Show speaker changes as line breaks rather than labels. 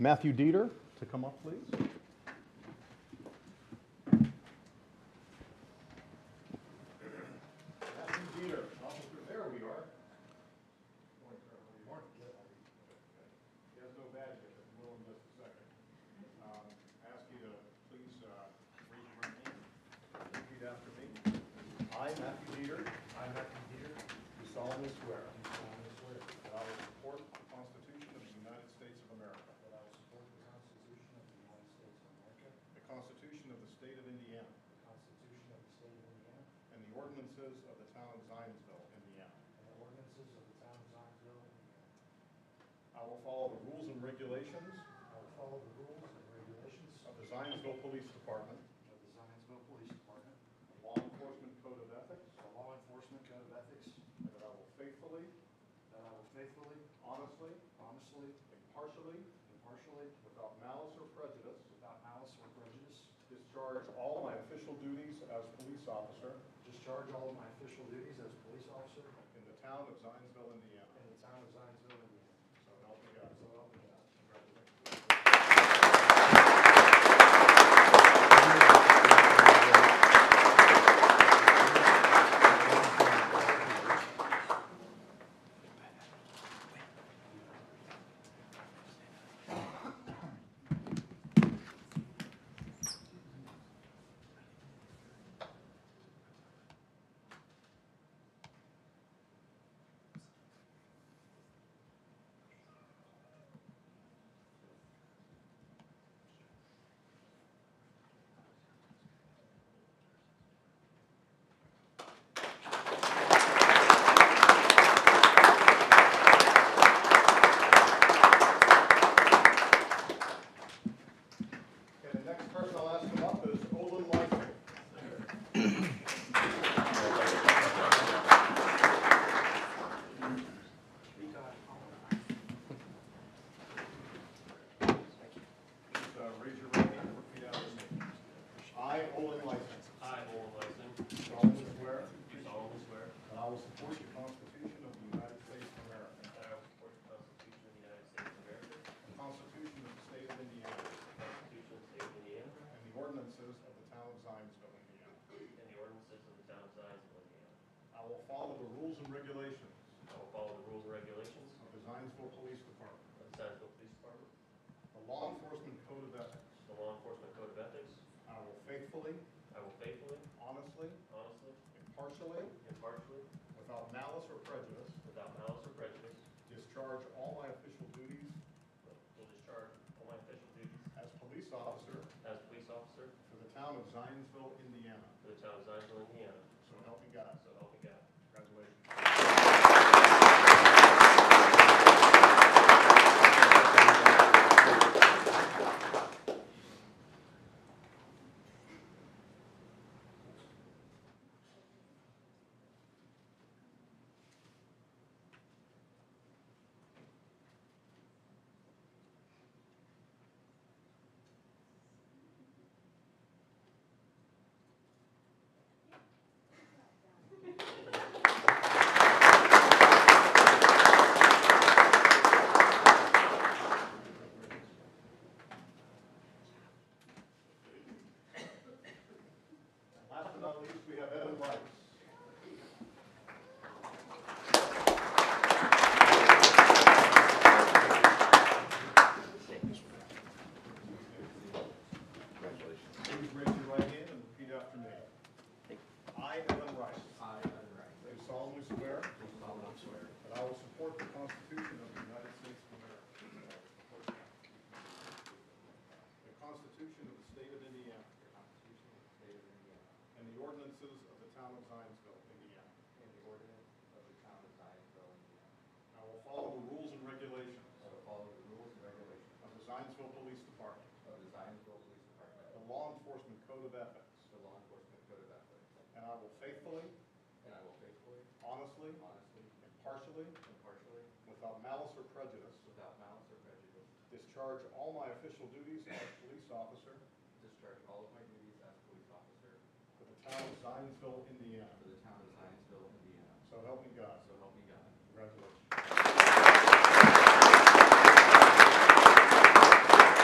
Matthew Dieter to come up, please. Matthew Dieter, officer, there we are. He has no badge yet, but we'll in just a second. Um, Ask you to please uh, raise your right hand. Repeat after me. I, Matthew Dieter. I, Matthew Dieter. Do solemnly swear. Do solemnly swear. That I will support the Constitution of the United States of America. That I will support the Constitution of the United States of America. The Constitution of the State of Indiana. The Constitution of the State of Indiana. And the ordinances of the town of Zionsville, Indiana. And the ordinances of the town of Zionsville, Indiana. I will follow the rules and regulations. I will follow the rules and regulations. Of the Zionsville Police Department. Of the Zionsville Police Department. The Law Enforcement Code of Ethics. The Law Enforcement Code of Ethics. And that I will faithfully. That I will faithfully. Honestly. Honestly. Impartially. Impartially. Without malice or prejudice. Without malice or prejudice. Discharge all my official duties as police officer. Discharge all of my official duties as police officer. In the town of Zionsville, Indiana. In the town of Zionsville, Indiana. So help me God. So help me God. Congratulations. Okay, the next person I'll ask him up is Olin Lyson. Please, uh, Raise your right hand and repeat after me. I, Olin Lyson,
I, Owen Lyson,
solemnly swear
do solemnly swear
that I will support the Constitution of the United States of America,
that I will support the Constitution of the United States of America,
the Constitution of the State of Indiana,
the Constitution of the State of Indiana,
and the ordinances of the town of Zionsville, Indiana.
and the ordinances of the town of Zionsville, Indiana.
I will follow the rules and regulations
I will follow the rules and regulations
of the Zionsville Police Department,
of the Zionsville Police Department,
the law enforcement code of ethics.
the law enforcement code of ethics.
I will faithfully,
I will faithfully,
honestly,
honestly,
impartially,
impartially,
without malice or prejudice,
without malice or prejudice,
discharge all my official duties
will discharge all my official duties
as police officer
as police officer
for the town of Zionsville, Indiana.
for the town of Zionsville, Indiana.
So help me God.
So help me God.
Congratulations. And Last but not least, we have Evan Weiss. Please raise your right hand and repeat after me. I, Evan Weiss,
I, Evan Wright,
do solemnly swear
do solemnly swear that
that I will support the Constitution of the United States of America, the Constitution of the State of Indiana,
the Constitution of the State of Indiana
and the ordinances of the town of Zionsville, Indiana.
and the ordinance of the town of Zionsville, Indiana,
I will follow the rules and regulations
I will follow the rules and regulations
of the Zionsville Police Department,
of the Zionsville Police Department,
the law enforcement code of ethics,
the law enforcement code of ethics,
and I will faithfully,
and I will faithfully,
honestly,
honestly,
impartially,
impartially,
without malice or prejudice,
without malice or prejudice,
discharge all my official duties as police officer
discharge all of my duties as police officer
for the town of Zionsville, Indiana.
for the town of Zionsville, Indiana.
So help me God.
So help me God.
Congratulations.